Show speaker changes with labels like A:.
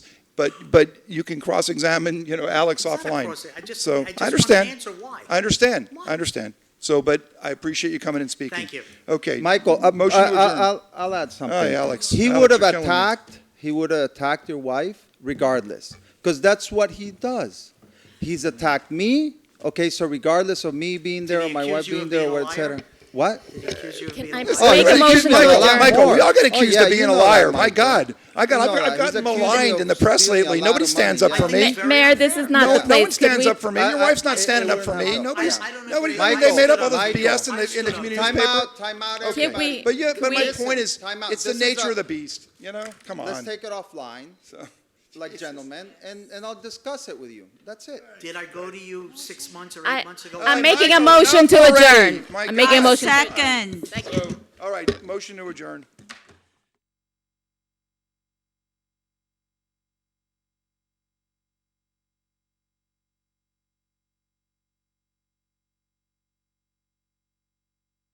A: But, but you can cross-examine, you know, Alex
B: It's not a
A: offline.
B: cross- I just-
A: So,
B: I
A: I
B: just want an
A: understand.
B: answer why.
A: I understand,
B: Why?
A: I understand. So, but I appreciate you coming and speaking.
B: Thank you.
A: Okay.
C: Michael, uh,
A: Motion
C: I,
A: to adjourn.
C: I, will I'll add something.
A: Aye, Alex.
C: He
A: Alex,
C: would have
A: you're killing me.
C: attacked. He would have attacked your wife, regardless, because that's what he does. He's attacked me. Okay, so regardless of me being there
B: he
C: or my
B: accuse
C: wife
B: you
C: being
B: of
C: there,
B: being a
C: or et cetera.
B: liar?
C: What?
B: They accuse you of
D: Can
B: being
D: I
B: a liar.
D: Oh,
A: Oh, you
D: Make a
A: got accused,
D: motion to
A: Michael,
D: adjourn.
A: Michael, we all get
C: Oh,
A: accused
C: yeah,
A: of being
C: you
A: a
C: know that,
A: liar. My
C: Michael.
A: God, I got,
C: You
A: I've,
C: know
A: I've
C: that.
A: gotten
C: He's accusing
A: maligned
C: you
A: in
C: of
A: the press
C: stealing a
A: lately.
C: lot
A: Nobody
C: of
A: stands
C: money.
A: up for
B: I
A: me.
B: think-
D: Ma- Mayor, this is not
A: No,
D: the
A: no
D: way
A: one
D: it's good.
A: stands
D: We-
A: up for me. Your
C: I- I-
A: wife's not
C: it-
A: standing
C: it
A: up for
C: would
A: me.
C: not.
A: Nobody's,
B: I- I don't
A: nobody,
B: agree.
A: they made up
C: Michael,
A: all this
C: Michael.
A: BS in the, in the community
C: Time
A: newspaper.
C: out. Time out.
D: Can
C: everybody.
D: we-
A: But yeah, but my
D: Wait.
A: point is,
C: Time out.
A: it's the
C: This is
A: nature
C: a-
A: of the beast, you know? Come
C: Let's
A: on.
C: take it offline,
A: So-
C: like gentlemen, and, and I'll discuss it with you. That's it.
B: Did I go to you six months or
D: I,
B: eight months ago?
D: I'm
A: Uh,
D: making a
A: Michael,
D: motion to
A: enough already.
D: adjourn.
A: My
D: I'm making a
A: God.
D: motion. to-
E: Second.
A: So, all right, motion to adjourn.